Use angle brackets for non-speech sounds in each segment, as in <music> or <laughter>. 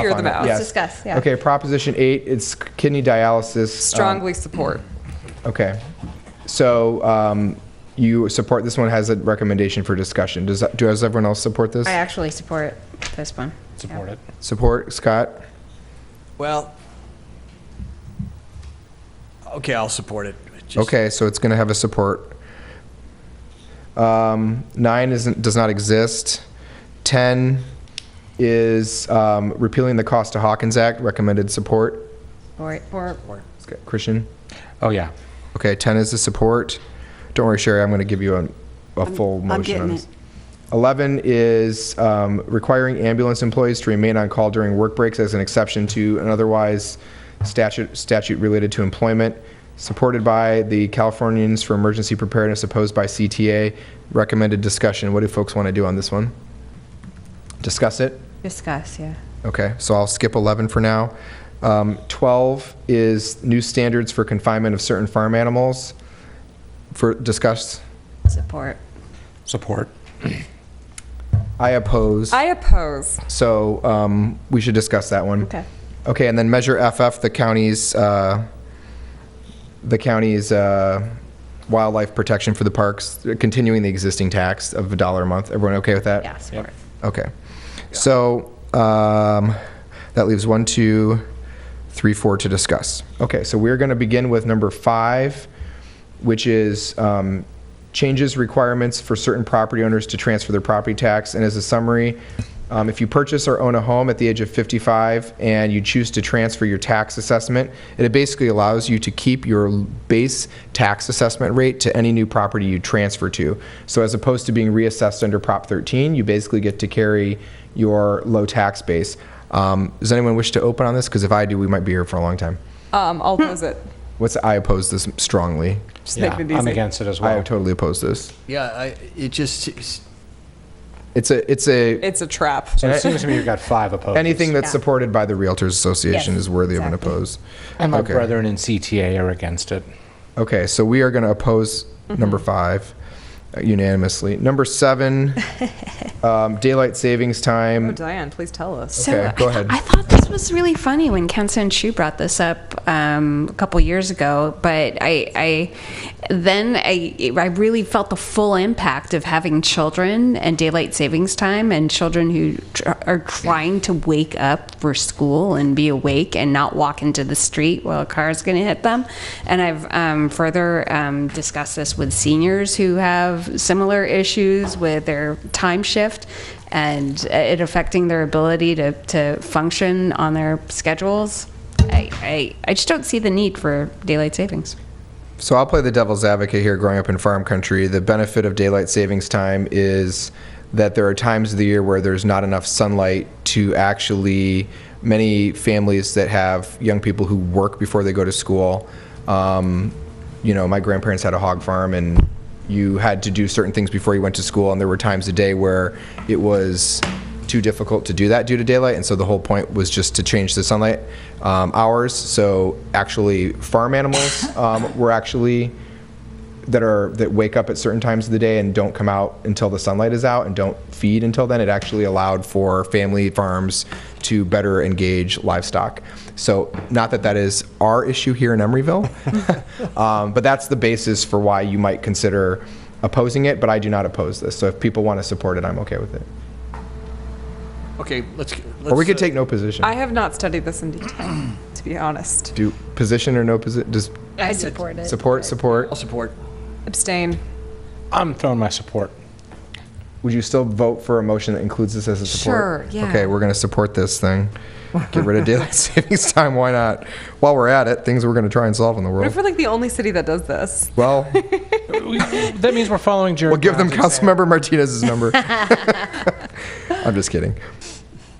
Hear off on them it. out. Yes. Let's discuss, yeah. Okay, Proposition 8, it's kidney dialysis. um, Strongly support. Okay. So um, you support, this one has a recommendation for discussion. Does, that- does everyone else support this? I actually support this one. Support it. Support, Scott? Well, okay, I'll support it. Just- Okay, so it's going to have a support. Um, Nine isn't, does not exist. 10 is um, repealing the Costa-Hawkins Act, recommended support. Or, or, Christian? Oh, yeah. Okay, 10 is the support. Don't worry, Sherry, I'm going to give you a, a full I'm motion getting on this. it. 11 is um, requiring ambulance employees to remain on call during work breaks as an exception to an otherwise statute, statute related to employment, supported by the Californians for Emergency Preparedness, opposed by CTA. Recommended discussion. What do folks want to do on this one? Discuss it? discuss, yeah. Okay, so I'll skip 11 for now. Um, 12 is new standards for confinement of certain farm animals for discuss. Support. Support. I oppose. I oppose. So um, we should discuss that one. Okay. Okay, and then Measure FF, the county's, uh, the county's uh, wildlife protection for the parks, continuing the existing tax of a dollar a month. Everyone okay with that? Yeah, support. Okay. So um, that leaves one, two, three, four to discuss. Okay, so we're going to begin with number five, which is um, changes requirements for certain property owners to transfer their property tax. And as a summary, um, if you purchase or own a home at the age of 55 and you choose to transfer your tax assessment, it basically allows you to keep your base tax assessment rate to any new property you transfer to. So as opposed to being reassessed under Prop 13, you basically get to carry your low tax base. Um, does anyone wish to open on this? Because if I do, we might be here for a long time. Um, I'll Hmm. oppose it. What's I oppose this strongly. Just Yeah, make it I'm easy. against it as I well. totally oppose this. Yeah, I, it just, it's- It's a it's a It's a trap. So it seems to me you've got five opposed. anything that's Yeah. supported by the Realtors Association Yes, is worthy of an exactly. oppose. And my okay. brethren in CTA are against it. Okay, so we are going to oppose number five uh, unanimously. Number seven, um, daylight savings Oh, time. Diane, please tell us. So Okay, I go thought- ahead. I thought this was really funny when Kenson Chu brought this up um, a couple years ago, but I, I then I, I really felt the full impact of having children and daylight savings time and children who tr- are trying to wake up for school and be awake and not walk into the street while a car is going to hit them. And I've um, further um, discussed this with seniors who have similar issues with their time shift and uh, it affecting their ability to, to function on their schedules. I, I, I just don't see the need for daylight savings. So I'll play the devil's advocate here. Growing up in farm country, the benefit of daylight savings time is that there are times of the year where there's not enough sunlight to actually. Many families that have young people who work before they go to school. Um, you know, my grandparents had a hog farm, and you had to do certain things before you went to school, and there were times a day where it was too difficult to do that due to daylight, and so the whole point was just to change the sunlight um, hours. So actually, farm animals um, were actually that are that wake up at certain times of the day and don't come out until the sunlight is out and don't feed until then. It actually allowed for family farms to better engage livestock. So, not that that is our issue here in Emeryville, um, but that's the basis for why you might consider opposing it. But I do not oppose this. So, if people want to support it, I'm okay with it. okay, let's. Or we let's, could uh, take no position. I have not studied this in detail, to be honest. do position or no position? Just I support it. support, support. I'll support. Abstain. I'm throwing my support. Would you still vote for a motion that includes this as a support? Sure, yeah. Okay, we're going to support this thing. Get rid of daylight savings time, why not? While we're at it, things we're going to try and solve in the What if world. we're like the only city that does this? Well, We- That means we're following Jared. we'll give <laughs> them Brown's example. Councilmember Martinez's number. <laughs> I'm just kidding.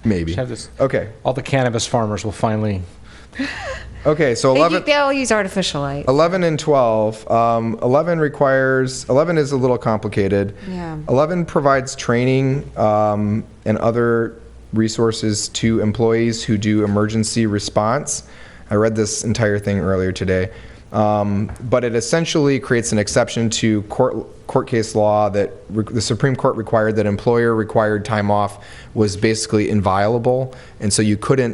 Maybe. Have this- Okay, All the cannabis farmers will finally, okay, so They, 11. u- they all use artificial light. 11 and 12. Um, 11 requires, 11 is a little complicated. Yeah. 11 provides training um, and other resources to employees who do emergency response. I read this entire thing earlier today. Um, But it essentially creates an exception to court, court case law that re- the Supreme Court required that employer-required time off was basically inviolable, and so you couldn't